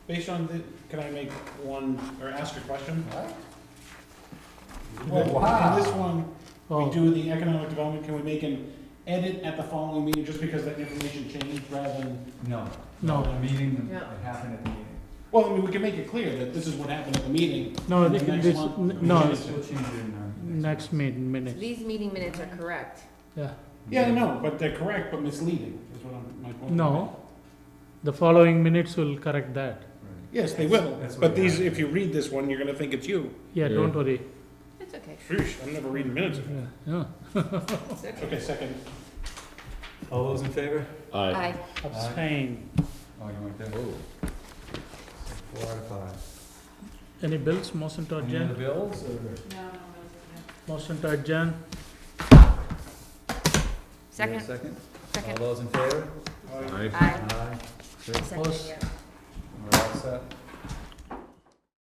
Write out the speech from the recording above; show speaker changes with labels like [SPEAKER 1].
[SPEAKER 1] Based on the, can I make one, or ask a question?
[SPEAKER 2] What?
[SPEAKER 1] Well,
[SPEAKER 2] wow.
[SPEAKER 1] In this one, we
[SPEAKER 3] Oh,
[SPEAKER 1] do the economic development, can we make an edit at the following meeting just because that information changed rather than?
[SPEAKER 2] No.
[SPEAKER 3] No.
[SPEAKER 2] The meeting,
[SPEAKER 4] No.
[SPEAKER 2] it happened at the meeting.
[SPEAKER 1] Well, I mean, we can make it clear that this is what happened at the meeting.
[SPEAKER 3] no,
[SPEAKER 1] and the
[SPEAKER 3] th-
[SPEAKER 1] next
[SPEAKER 3] this,
[SPEAKER 1] one-
[SPEAKER 3] n- no,
[SPEAKER 2] We'll change- we'll change it in our
[SPEAKER 3] next meeting
[SPEAKER 4] So
[SPEAKER 3] minutes,
[SPEAKER 4] These meeting minutes are correct.
[SPEAKER 3] yeah.
[SPEAKER 1] Yeah, no, but they're correct, but misleading, is what I'm, my point.
[SPEAKER 3] No, the following minutes will correct that.
[SPEAKER 2] Right.
[SPEAKER 1] Yes, they will,
[SPEAKER 2] That's what
[SPEAKER 1] but these,
[SPEAKER 2] happened.
[SPEAKER 1] if you read this one, you're gonna think it's you.
[SPEAKER 3] Yeah, don't worry.
[SPEAKER 4] It's okay.
[SPEAKER 1] Phew, I'm never reading minutes.
[SPEAKER 3] Yeah, yeah.
[SPEAKER 4] It's okay.
[SPEAKER 1] Okay, second.
[SPEAKER 2] All those in favor?
[SPEAKER 4] Aye.
[SPEAKER 3] Abstain.
[SPEAKER 2] Oh, you weren't there. So Four out of five.
[SPEAKER 3] Any bills, motion to
[SPEAKER 2] Any other
[SPEAKER 3] adjourn,
[SPEAKER 2] bills or?
[SPEAKER 3] motion to adjourn,
[SPEAKER 2] You have a
[SPEAKER 4] Second,
[SPEAKER 2] Second? All
[SPEAKER 4] second.
[SPEAKER 2] those in favor?
[SPEAKER 4] Aye.
[SPEAKER 2] Aye. Great.
[SPEAKER 4] Second,
[SPEAKER 3] Opposed?
[SPEAKER 4] yeah.
[SPEAKER 2] We're all set.